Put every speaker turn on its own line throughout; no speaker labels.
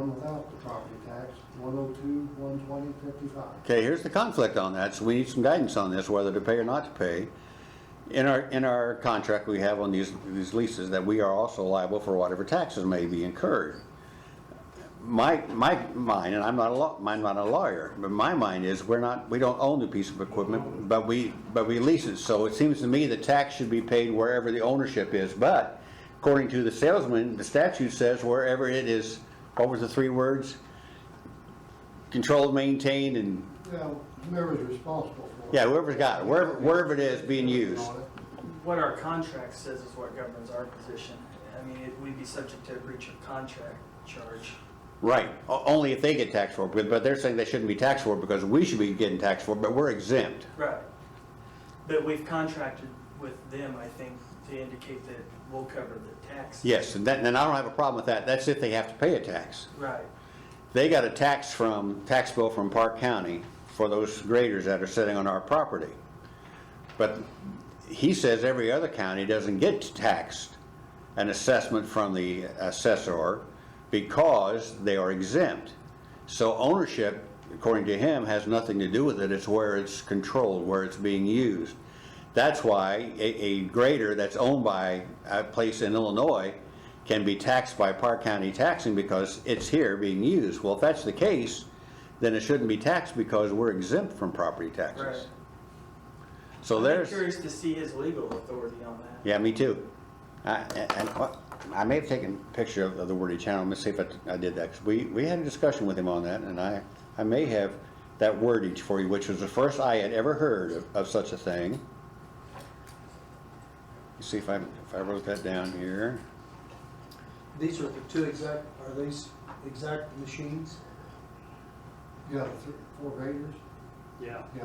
up the property tax, one oh two, one twenty, fifty-five.
Okay, here's the conflict on that, so we need some guidance on this, whether to pay or not to pay. In our, in our contract, we have on these, these leases that we are also liable for whatever taxes may be incurred. My, my mind, and I'm not a law, I'm not a lawyer, but my mind is, we're not, we don't own the piece of equipment, but we, but we lease it, so it seems to me the tax should be paid wherever the ownership is, but according to the salesman, the statute says wherever it is, what was the three words? Controlled, maintained, and
Well, whoever's responsible for it.
yeah, whoever's got it, wherever, wherever it is being used.
On it.
What our contract says is what governs our position. I mean, it- we'd be subject to a breach of contract charge.
Right, o- only if they get taxed for it, but- but they're saying they shouldn't be taxed for it because we should be getting taxed for it, but we're exempt.
Right. But we've contracted with them, I think, to indicate that we'll cover the tax.
Yes, and that, and I don't have a problem with that, that's if they have to pay a tax.
Right.
They got a tax from, tax bill from Park County for those graders that are sitting on our property. But he says every other county doesn't get taxed an assessment from the assessor because they are exempt. So ownership, according to him, has nothing to do with it, it's where it's controlled, where it's being used. That's why a, a grader that's owned by a place in Illinois can be taxed by Park County taxing because it's here being used. Well, if that's the case, then it shouldn't be taxed because we're exempt from property
Right.
taxes. So
I'm
there's.
Curious to see his legal authority on that.
Yeah, me too. I- And and what- I may have taken a picture of of the worded channel, let me see if I I did that, 'cause we, we had a discussion with him on that, and I, I may have that wordage for you, which was the first I had ever heard of, of such a thing. Let's See if I, if I wrote that down here.
These are the two exact, are these exact machines?
Yeah, three, four graders,
Yeah,
yeah.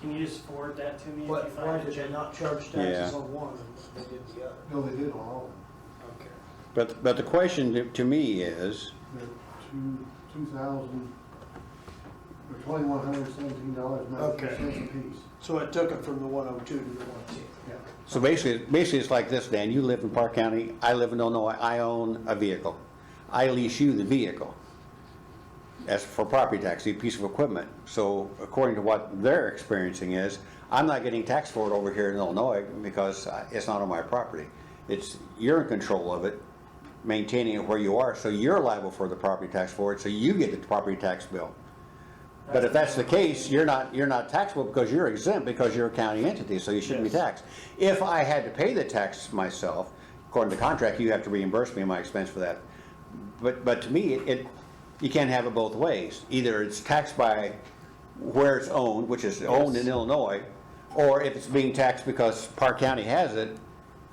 Can you just forward that to me if you
What, why
find
did they
it?
not charge taxes on one and they did the other?
No, they did on all of them.
Okay.
But, but the question to- to me is,
They're two, two thousand, or twenty-one hundred seventeen dollars ninety
Okay.
cents apiece.
So it took it from the one oh two to the one ten?
Yeah.
So basically, basically it's like this, Dan, you live in Park County, I live in Illinois, I own a vehicle. I lease you the vehicle. As for property tax, a piece of equipment. So according to what they're experiencing is, I'm not getting taxed for it over here in Illinois because I- it's not on my property. It's, you're in control of it, maintaining it where you are, so you're liable for the property tax for it, so you get the property tax bill. But if that's the case, you're not, you're not taxable because you're exempt because you're a county entity, so you shouldn't be
Yes.
taxed. If I had to pay the tax myself, according to contract, you have to reimburse me my expense for that. But, but to me, it, you can't have it both ways. Either it's taxed by where it's owned, which is owned in
Yes.
Illinois, or if it's being taxed because Park County has it,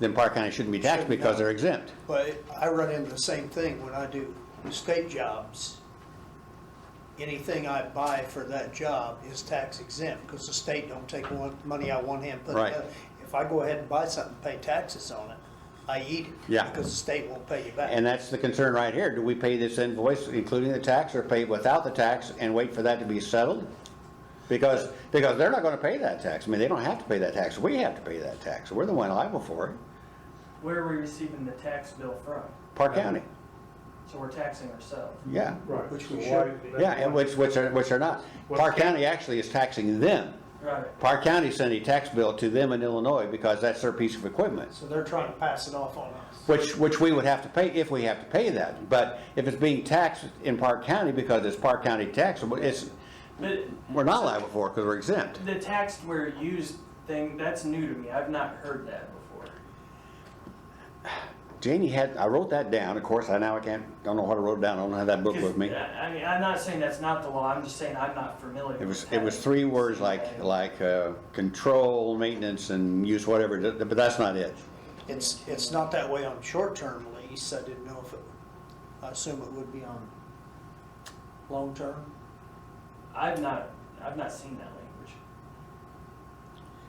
then Park County shouldn't be taxed
Shouldn't have
because
it.
they're exempt.
But I run into the same thing when I do state jobs. Anything I buy for that job is tax exempt, because the state don't take one, money out one hand, put it
Right.
other. If I go ahead and buy something, pay taxes on it, I eat it.
Yeah.
Because the state won't pay you back.
And that's the concern right here. Do we pay this invoice including the tax or pay it without the tax and wait for that to be settled? Because, because they're not gonna pay that tax. I mean, they don't have to pay that tax. We have to pay that tax. We're the one liable for it.
Where are we receiving the tax bill from?
Park County,
So we're taxing ourselves.
yeah.
right.
Which we
So
should.
why-
Yeah, and which, which are, which are not. Park County actually is taxing them.
Right.
Park County sent a tax bill to them in Illinois because that's their piece of equipment.
So they're trying to pass it off on us.
Which, which we would have to pay if we have to pay that. But if it's being taxed in Park County because it's Park County taxable, it's,
But
we're not liable for it because we're exempt.
the taxed where used thing, that's new to me. I've not heard that before.
Janie had, I wrote that down, of course, I now I can't, don't know how to wrote it down, I don't have that book with me.
I I mean, I'm not saying that's not the law, I'm just saying I'm not familiar.
It was,
with
it was
that.
three words like, like, uh, control, maintenance, and use whatever, th- but that's not it.
It's, it's not that way on short-term lease, I didn't know if it, I assume it would be on long-term.
I've not, I've not seen that language.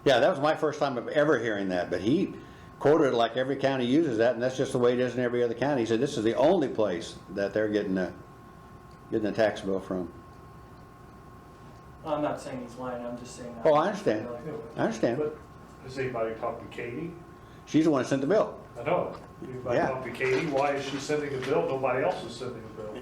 Yeah, that was my first time of ever hearing that, but he quoted it like every county uses that, and that's just the way it is in every other county. He said, this is the only place that they're getting a, getting a tax bill from.
I'm not saying he's lying, I'm just saying. I'm
Oh, I
not
understand.
familiar with it.
I understand,
But Has anybody talked to Katie?
she's the one that sent the bill.
I know. Anybody
Yeah.
talked to Katie? Why is she sending a bill? Nobody else is sending a bill.